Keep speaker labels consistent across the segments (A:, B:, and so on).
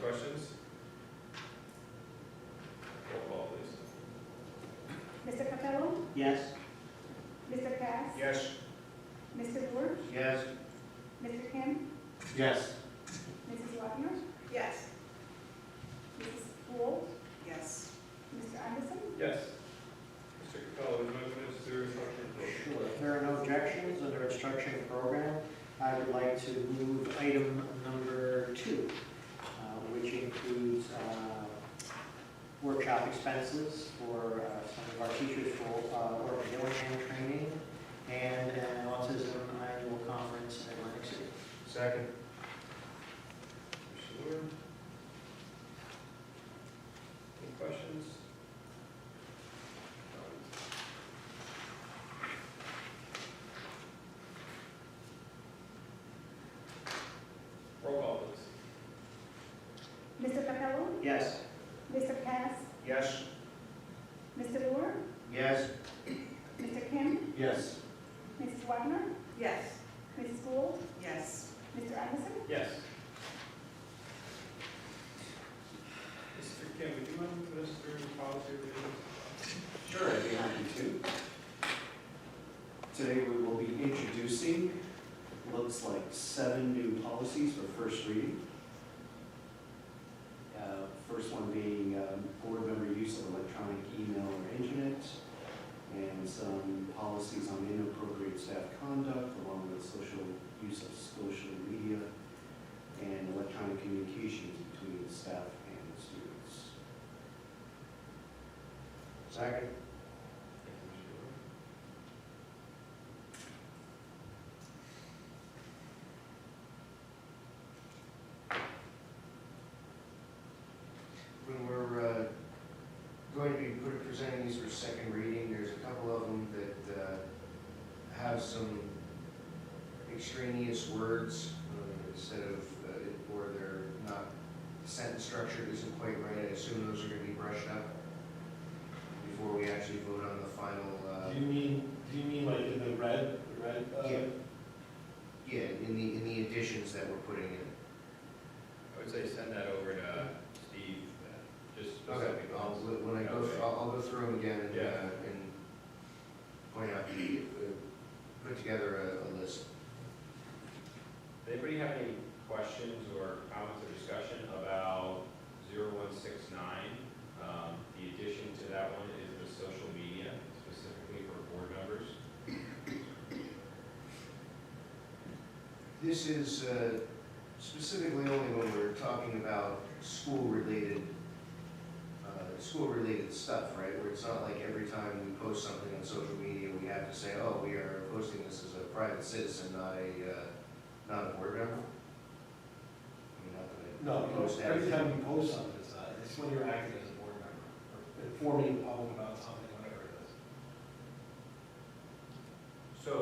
A: questions? Roll call, please.
B: Mr. Capello,
C: Yes.
B: Mr. Cass,
C: Yes.
B: Mr. George,
C: Yes.
B: Mr. Kim,
C: Yes.
B: Mrs. Wagner,
D: Yes.
B: Mrs. Wool,
D: Yes.
B: Mr. Anderson,
A: Yes. Mr. Capello, would you like to move to instruction?
C: Sure, if there are no objections under instruction program, I would like to move item number two, uh, which includes uh, workshop expenses for uh, some of our teachers for uh, work and diligent training and an autism annual conference in Atlantic City.
A: Second. Mr. Lewin? Any questions? Roll call, please.
B: Mr. Capello,
C: Yes?
B: Mr. Cass,
C: Yes.
B: Mr. Moore,
C: Yes.
B: Mr. Kim,
C: Yes.
B: Mrs. Wagner,
D: Yes.
B: Mrs. Wool,
D: Yes.
B: Mr. Anderson,
A: Yes. Mr. Kim, would you mind putting us through the policy review?
E: Sure, I'd be happy to. Today, we will be introducing, looks like seven new policies for first reading. Uh, First one being um, board member use of electronic email or internet, and some policies on inappropriate staff conduct, along with social use of social media and electronic communications between staff and students.
C: Second?
A: Thank you, Mr. Lewin.
E: When we're uh, going to be pre- presenting these for second reading, there's a couple of them that uh, have some extraneous words uh, instead of, uh, or they're not, sentence structure isn't quite right. I assume those are going to be brushed up before we actually vote on the final, uh,
F: Do you mean, do you mean like in the red, the red? uh,
E: Yeah. yeah, in the, in the additions that we're putting in.
A: I would say send that over to Steve, uh, just
E: Okay,
A: specific
E: I'll,
A: ones.
E: when I go,
A: Okay.
E: through- I'll, I'll go through them again and,
A: Yeah.
E: uh, and point out, the- uh, put together a, a list.
A: Does anybody have any questions or comments or discussion about 0169? Um, The addition to that one is the social media, specifically for board members.
E: This is uh, specifically only when we're talking about school-related, uh, school-related stuff, right? Where it's not like every time we post something on social media, we have to say, oh, we are posting this as a private citizen, not a, uh, not a board member? I mean, not that I
F: No, no,
E: post
F: every
E: everything.
F: time you post something, it's not, it's when you're acting as a board member, or informing the public about something, whatever it is.
A: So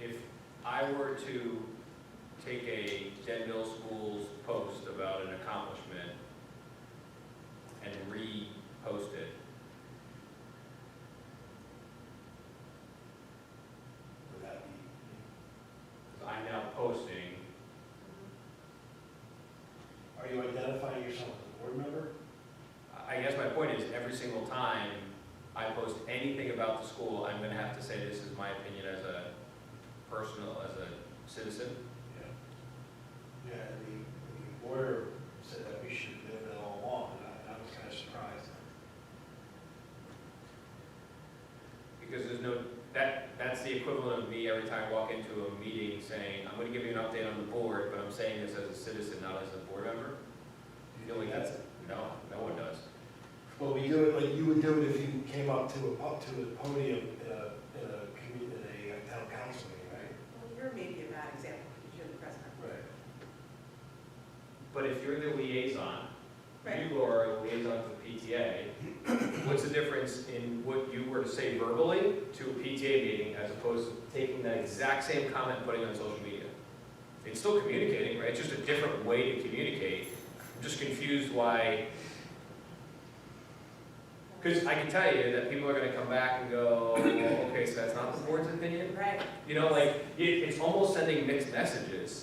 A: if I were to take a Denville School's post about an accomplishment and repost it,
F: Would that be?
A: I'm now posting,
F: Are you identifying yourself as a board member?
A: I guess my point is, every single time I post anything about the school, I'm gonna have to say this is my opinion as a personal, as a citizen.
F: Yeah. Yeah, and the, the board said that we should do it all along, and I, I was kind of surprised.
A: Because there's no, that, that's the equivalent of me every time I walk into a meeting saying, I'm gonna give you an update on the board, but I'm saying this as a citizen, not as a board member.
F: Do you
A: No, we-
F: think that's it?
A: No, no one does.
F: Well, we do it, like, you would do it if you came up to a, po- to a podium in a, in a, commu- in a town council meeting, right?
D: Well, you're maybe a bad example because you're the president.
F: Right.
A: But if you're the liaison,
D: Right.
A: you are a liaison to the PTA, what's the difference in what you were to say verbally to a PTA meeting as opposed to taking that exact same comment and putting it on social media? It's still communicating, right? It's just a different way to communicate. I'm just confused why, because I can tell you that people are gonna come back and go, "Oh, "Well, okay, so that's not the board's opinion?
D: Right.
A: You know, like, it, it's almost sending mixed messages.